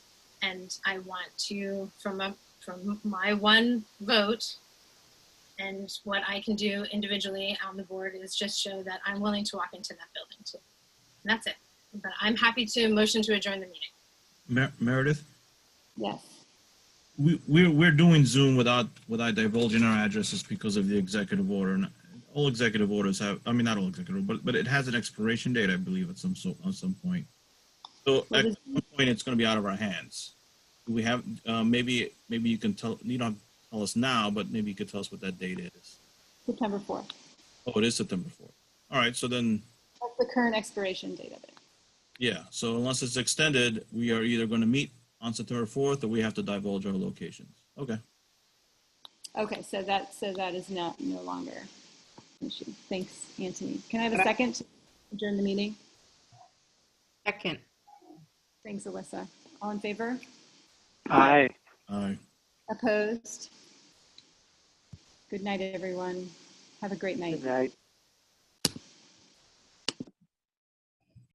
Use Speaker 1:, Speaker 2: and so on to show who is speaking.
Speaker 1: and I want to from a from my one vote and what I can do individually on the board is just show that I'm willing to walk into that building too. And that's it. But I'm happy to motion to adjourn the meeting.
Speaker 2: Mer- Meredith,
Speaker 3: Yes.
Speaker 2: we, we're, we're doing Zoom without, without divulging our addresses because of the executive order. And all executive orders have, I mean, not all executive, but, but it has an expiration date, I believe, at some, so, at some point. So
Speaker 3: What
Speaker 2: at
Speaker 3: is-
Speaker 2: some point, it's going to be out of our hands. Do We have, uh, maybe, maybe you can tell, you don't tell us now, but maybe you could tell us what that date is.
Speaker 3: September 4th.
Speaker 2: Oh, it is September 4th. All right, so then,
Speaker 3: That's the current expiration date of it.
Speaker 2: yeah, so unless it's extended, we are either going to meet on September 4th or we have to divulge our locations. Okay.
Speaker 3: Okay, so that, so that is not, no longer an issue. Thanks, Anthony. Can I have a second to adjourn the meeting?
Speaker 4: Second.
Speaker 3: Thanks, Alyssa. All in favor?
Speaker 5: Aye.
Speaker 2: All right.
Speaker 3: Opposed? Good night, everyone. Have a great night.
Speaker 5: Good night.